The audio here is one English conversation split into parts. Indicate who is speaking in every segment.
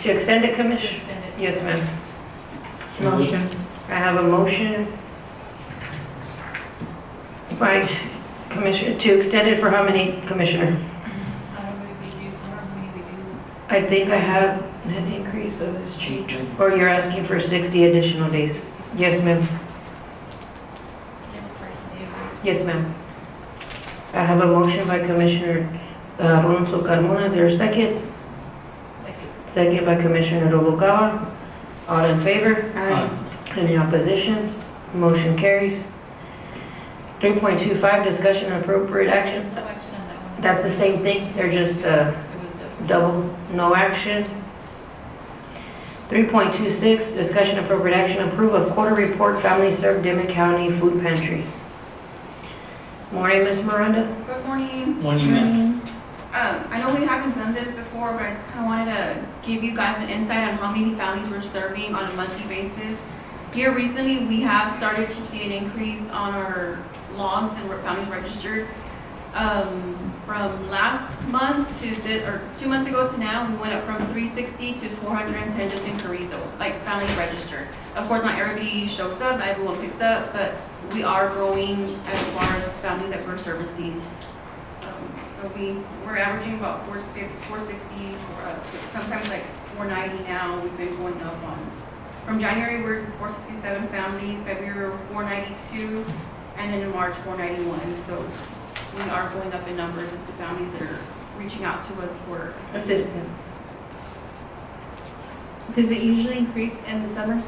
Speaker 1: To extend it, Commissioner?
Speaker 2: Extend it.
Speaker 1: Yes, ma'am. Mm-hmm.
Speaker 3: Motion.
Speaker 1: I have a motion by Commissioner, to extend it for how many, Commissioner?
Speaker 2: I would review, or we review.
Speaker 1: I think I have an increase of his cheat.
Speaker 4: Uh,
Speaker 1: Or you're asking for 60 additional days? Yes, ma'am.
Speaker 2: Dennis Burks, do you agree?
Speaker 1: Yes, ma'am. I have a motion by Commissioner uh, Alonso Carmona. Is there a second?
Speaker 2: Second.
Speaker 1: Second by Commissioner Noguera. All in favor?
Speaker 3: Aye.
Speaker 1: Any opposition? Motion carries. 3.25, discussion and appropriate action.
Speaker 2: No action on that one.
Speaker 1: That's the same thing, they're just uh,
Speaker 2: It was double.
Speaker 1: double, no action. 3.26, discussion and appropriate action, approve of quarter report, family served Dimmitt County Food Pantry. Morning, Ms. Miranda.
Speaker 5: Good morning.
Speaker 3: Morning, ma'am.
Speaker 5: Um, I know we haven't done this before, but I just kind of wanted to give you guys an insight on how many families we're serving on a monthly basis. Here recently, we have started to see an increase on our logs and re- families registered. Um, from last month to the, or two months ago to now, we went up from three sixty to four hundred and ten just in Carrizo, like families registered. Of course, not everybody shows up, not everyone picks up, but we are growing as far as families that we're servicing. Um, So we, we're averaging about four sixty, four sixty, uh, sometimes like four ninety now, we've been going up on. From January, we're four sixty-seven families, February, four ninety-two, and then in March, four ninety-one. So we are going up in numbers as to families that are reaching out to us for assistance.
Speaker 6: Does it usually increase in the summer?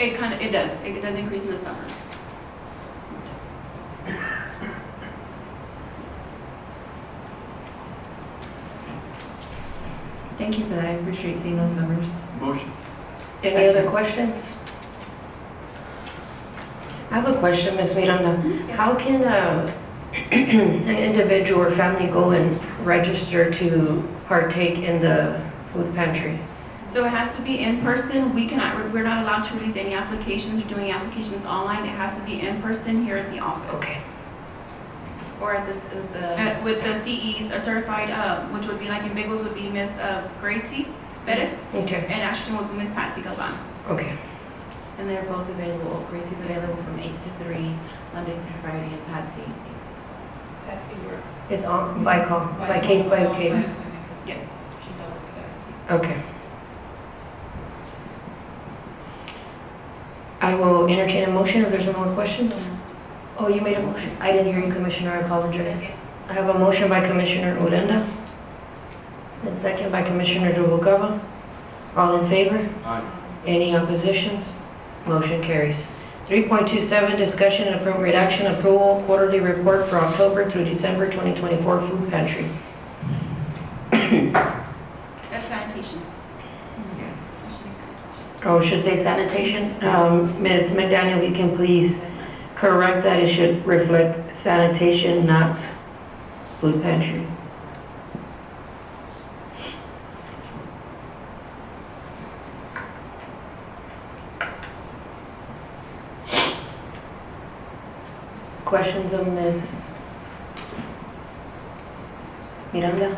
Speaker 5: It kind of, it does, it does increase in the summer.
Speaker 6: Thank you for that. I appreciate seeing those numbers.
Speaker 3: Motion.
Speaker 1: Any other questions? I have a question, Ms. Miranda. How can uh, an individual or family go and register to partake in the food pantry?
Speaker 5: So it has to be in person. We cannot, we're not allowed to release any applications or do any applications online. It has to be in person here at the office.
Speaker 2: Or at this, uh, the,
Speaker 5: Uh, With the CEs are certified, uh, which would be like in Bengals would be Miss uh, Gracie Bettis
Speaker 1: Okay,
Speaker 5: and Ashton would be Miss Patsy Galan.
Speaker 1: okay.
Speaker 2: and they're both available, Gracie's available from eight to three, Monday through Friday, and Patsy. Patsy works.
Speaker 1: It's on, by call, by case, by case.
Speaker 5: Yes.
Speaker 2: She's over to us.
Speaker 1: Okay. I will entertain a motion if there's no more questions. Oh, you made a motion. I didn't hear you, Commissioner, I apologize. I have a motion by Commissioner Odena, and second by Commissioner Noguera. All in favor?
Speaker 3: Aye.
Speaker 1: Any oppositions? Motion carries. 3.27, discussion and appropriate action, approval quarterly report for October through December 2024 food pantry.
Speaker 5: That's sanitation.
Speaker 6: Yes.
Speaker 1: Oh, it should say sanitation. Um, Ms. McDaniel, if you can please correct that, it should reflect sanitation, not food pantry. Questions of Ms. Miranda?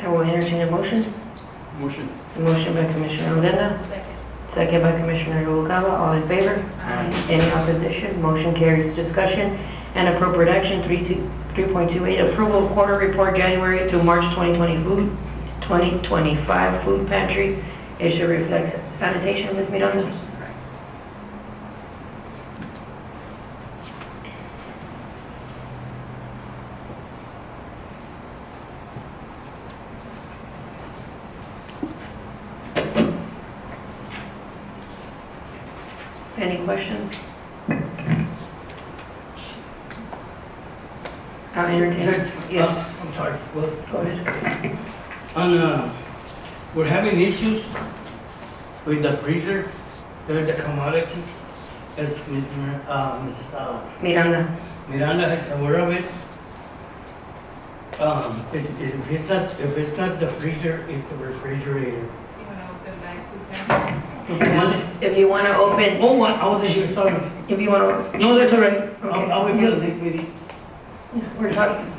Speaker 1: I will entertain a motion.
Speaker 3: Motion.
Speaker 1: A Motion by Commissioner Odena,
Speaker 2: Second.
Speaker 1: second by Commissioner Noguera. All in favor?
Speaker 3: Aye.
Speaker 1: Any opposition? Motion carries. Discussion and appropriate action, 32 3.28, approval of quarter report January through March 2020 food, 2025 food pantry. It should reflect sanitation, Ms. Miranda.
Speaker 5: Sanitation, correct.
Speaker 1: Any questions? I'll entertain. Yes,
Speaker 4: Uh, I'm sorry. Well,
Speaker 1: go ahead.
Speaker 4: on, uh, we're having issues with the freezer, there are the commodities, as Ms. Mir- uh, Ms. uh,
Speaker 1: Miranda,
Speaker 4: Miranda is aware of it. Um, if, if it's not, if it's not the freezer, it's the refrigerator.
Speaker 2: You wanna open back food pantry?
Speaker 4: One-
Speaker 1: if you want to open,
Speaker 4: Oh, one, I wasn't here, sorry.
Speaker 1: if you want to,
Speaker 4: No, that's all right. I'll, I'll be
Speaker 1: Okay.
Speaker 4: here next meeting.
Speaker 1: we're talking,